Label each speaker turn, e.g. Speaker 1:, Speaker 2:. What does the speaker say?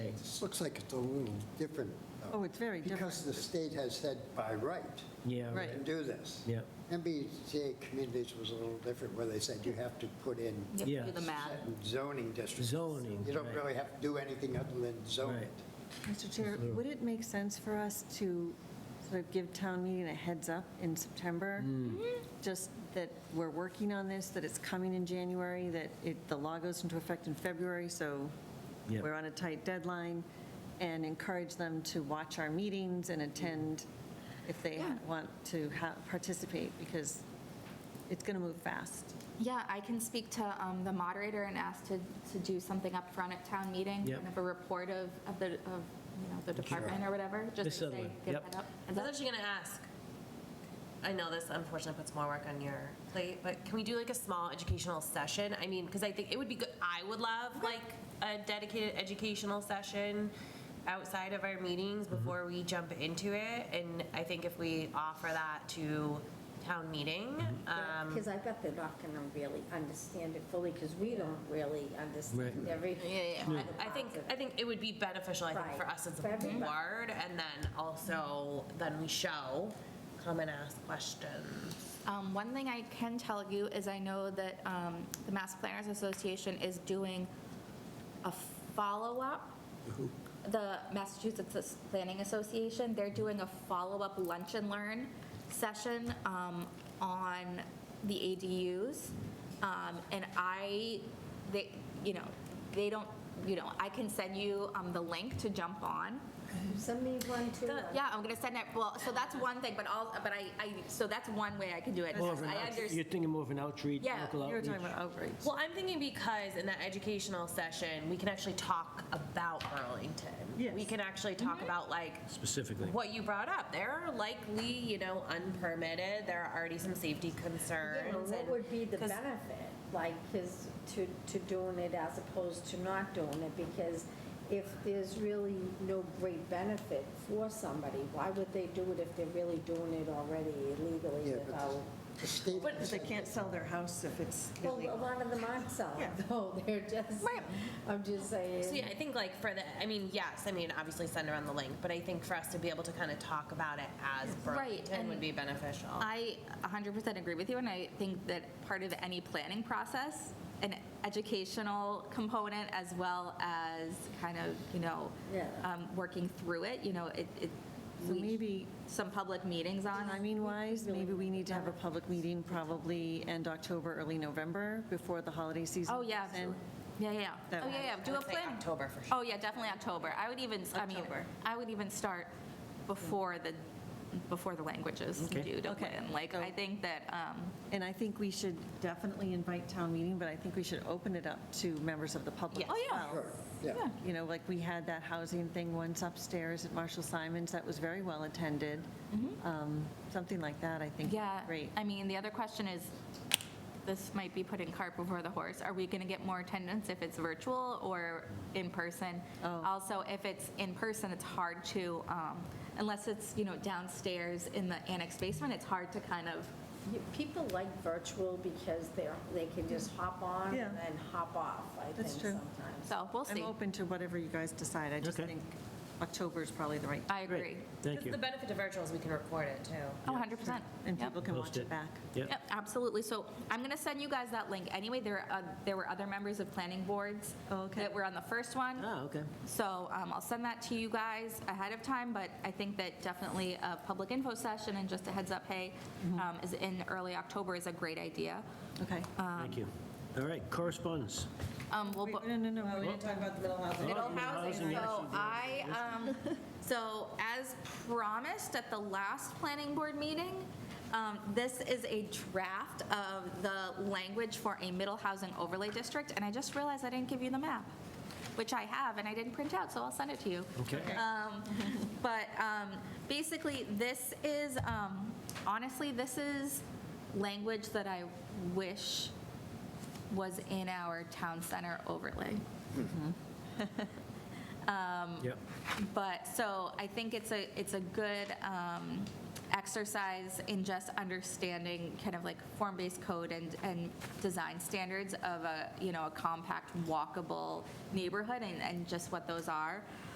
Speaker 1: This looks like it's a little different. though,
Speaker 2: Oh, it's very
Speaker 1: Because the state has said by right,
Speaker 3: Yeah.
Speaker 1: you
Speaker 2: Right.
Speaker 1: can do this.
Speaker 3: Yeah,
Speaker 1: MBTA communities was a little different, where they said you have to put in
Speaker 4: You have to do
Speaker 3: Yeah.
Speaker 4: the math.
Speaker 1: certain zoning districts.
Speaker 3: Zoning,
Speaker 1: You don't
Speaker 3: right.
Speaker 1: really have to do anything other than zone
Speaker 3: Right.
Speaker 1: it.
Speaker 2: Mr. Chair, would it make sense for us to sort of give town meeting a heads up in September? Just that we're working on this, that it's coming in January, that it, the law goes into effect in February, so
Speaker 3: Yeah.
Speaker 2: we're on a tight deadline, and encourage them to watch our meetings and attend if they
Speaker 4: Yeah.
Speaker 2: want to ha- participate, because it's going to move fast.
Speaker 4: Yeah, I can speak to um, the moderator and ask to, to do something up front at town meeting,
Speaker 3: Yep.
Speaker 4: kind of a report of, of the, of, you know, the department or whatever,
Speaker 3: Miss
Speaker 4: just to say,
Speaker 3: Sutherland,
Speaker 4: give
Speaker 3: yep.
Speaker 4: that up.
Speaker 5: I was actually gonna ask. I know this unfortunately puts more work on your plate, but can we do like a small educational session? I mean, because I think it would be good, I would love like a dedicated educational session outside of our meetings before we jump into it. And I think if we offer that to town meeting, um,
Speaker 6: Because I bet they're not going to really understand it fully, because we don't really understand
Speaker 3: Right.
Speaker 6: every.
Speaker 5: I I think, I think it would be beneficial, I think, for
Speaker 6: Right.
Speaker 5: us as
Speaker 6: For
Speaker 5: a
Speaker 6: everybody.
Speaker 5: board, and then also, then we show, come and ask questions.
Speaker 4: Um, One thing I can tell you is I know that um, the Mass Planners Association is doing a follow-up. The Massachusetts Planning Association, they're doing a follow-up lunch and learn session um, on the ADUs. Um, And I, they, you know, they don't, you know, I can send you um, the link to jump on.
Speaker 6: Send me one too.
Speaker 4: Yeah, I'm gonna send it, well, so that's one thing, but all, but I, I, so that's one way I can do it.
Speaker 3: More of an
Speaker 4: I
Speaker 3: out-
Speaker 4: understand.
Speaker 3: you're thinking more of an outreach,
Speaker 4: Yeah.
Speaker 3: local
Speaker 2: You were
Speaker 3: outreach.
Speaker 2: talking about outreach.
Speaker 5: Well, I'm thinking because in that educational session, we can actually talk about Burlington.
Speaker 2: Yes.
Speaker 5: We can actually talk about like
Speaker 3: Specifically.
Speaker 5: what you brought up. There are likely, you know, unpermitted, there are already some safety
Speaker 6: You know,
Speaker 5: concerns.
Speaker 6: what
Speaker 5: and-
Speaker 6: would be the
Speaker 5: 'cause-
Speaker 6: benefit, like, is to, to doing it as opposed to not doing it? Because if there's really no great benefit for somebody, why would they do it if they're really doing it already illegally
Speaker 1: Yeah, but-
Speaker 6: without?
Speaker 1: The state
Speaker 2: But they can't sell their house if it's
Speaker 6: Well, a lot of them aren't selling,
Speaker 2: Yeah.
Speaker 6: though, they're just,
Speaker 5: Right.
Speaker 6: I'm just saying.
Speaker 5: So yeah, I think like for the, I mean, yes, I mean, obviously send around the link, but I think for us to be able to kind of talk about it as
Speaker 4: Right,
Speaker 5: Burlington
Speaker 4: and
Speaker 5: would be beneficial.
Speaker 4: I 100% agree with you, and I think that part of any planning process, an educational component as well as kind of, you know,
Speaker 6: Yeah.
Speaker 4: um, working through it, you know, it, it-
Speaker 2: So
Speaker 4: we,
Speaker 2: maybe,
Speaker 4: some public meetings on, I mean,
Speaker 2: timing-wise, maybe we need to have a public meeting probably end October, early November, before the holiday season.
Speaker 4: oh, yeah,
Speaker 2: comes in.
Speaker 4: yeah, yeah, yeah,
Speaker 2: That
Speaker 4: oh,
Speaker 2: one.
Speaker 4: yeah, yeah, do
Speaker 5: I
Speaker 4: a
Speaker 5: would say
Speaker 4: plan.
Speaker 5: October for sure.
Speaker 4: Oh, yeah, definitely October. I would even, I mean,
Speaker 5: October.
Speaker 4: I would even start before the, before the language is due to
Speaker 2: Okay.
Speaker 4: plan. Like, I think that, um,
Speaker 2: And I think we should definitely invite town meeting, but I think we should open it up to members of the public.
Speaker 5: Yes.
Speaker 4: oh, yeah.
Speaker 1: Sure, yeah.
Speaker 4: Yeah.
Speaker 2: You know, like we had that housing thing once upstairs at Marshall Simons, that was very well attended. Um, Something like that, I think. would be
Speaker 4: Mm-hmm. Yeah.
Speaker 2: Great.
Speaker 4: I mean, the other question is, this might be putting cart before the horse. Are we going to get more attendance if it's virtual or in person?
Speaker 2: Oh.
Speaker 4: Also, if it's in person, it's hard to, um, unless it's, you know, downstairs in the annex basement, it's hard to kind of,
Speaker 6: You- People like virtual because they're, they can just hop on
Speaker 2: Yeah.
Speaker 6: and then hop off, I think
Speaker 2: That's true.
Speaker 6: sometimes.
Speaker 4: so we'll
Speaker 2: I'm
Speaker 4: see.
Speaker 2: open to whatever you guys decide. I just
Speaker 3: Okay.
Speaker 2: think October is probably the right,
Speaker 4: I
Speaker 3: Great.
Speaker 4: agree.
Speaker 3: Thank
Speaker 5: Because
Speaker 3: you.
Speaker 5: the benefit of virtual is we can record it too.
Speaker 4: Oh, 100%.
Speaker 2: and
Speaker 4: Yep.
Speaker 2: people can
Speaker 3: Post
Speaker 2: watch
Speaker 3: it.
Speaker 2: it back.
Speaker 3: Yep,
Speaker 4: Yep, absolutely. So I'm going to send you guys that link. Anyway, there, are oth- there were other members of planning boards
Speaker 2: Oh, okay. Oh.
Speaker 4: that were on the first one.
Speaker 3: ah, okay.
Speaker 4: So um, I'll send that to you guys ahead of time, but I think that definitely a public info session and just a heads up, hey, um, is in early October is a great idea.
Speaker 2: Okay.
Speaker 4: Uh,
Speaker 3: Thank you. All right, correspondence.
Speaker 4: Um, we'll
Speaker 2: Wait,
Speaker 4: bu-
Speaker 2: No, no, no. We didn't talk about the middle housing.
Speaker 4: middle
Speaker 3: Middle housing,
Speaker 4: housing,
Speaker 3: yes,
Speaker 4: so
Speaker 3: you did.
Speaker 4: I, um, so as promised at the last planning board meeting, um, this is a draft of the language for a middle housing overlay district, and I just realized I didn't give you the map, which I have, and I didn't print out, so I'll send it to you.
Speaker 3: Okay.
Speaker 4: But um, basically, this is, um, honestly, this is language that I wish was in our town center overlay.
Speaker 3: Yep.
Speaker 4: But, so I think it's a, it's a good um, exercise in just understanding kind of like form-based code and, and design standards of a, you know, a compact, walkable neighborhood and, and just what those are.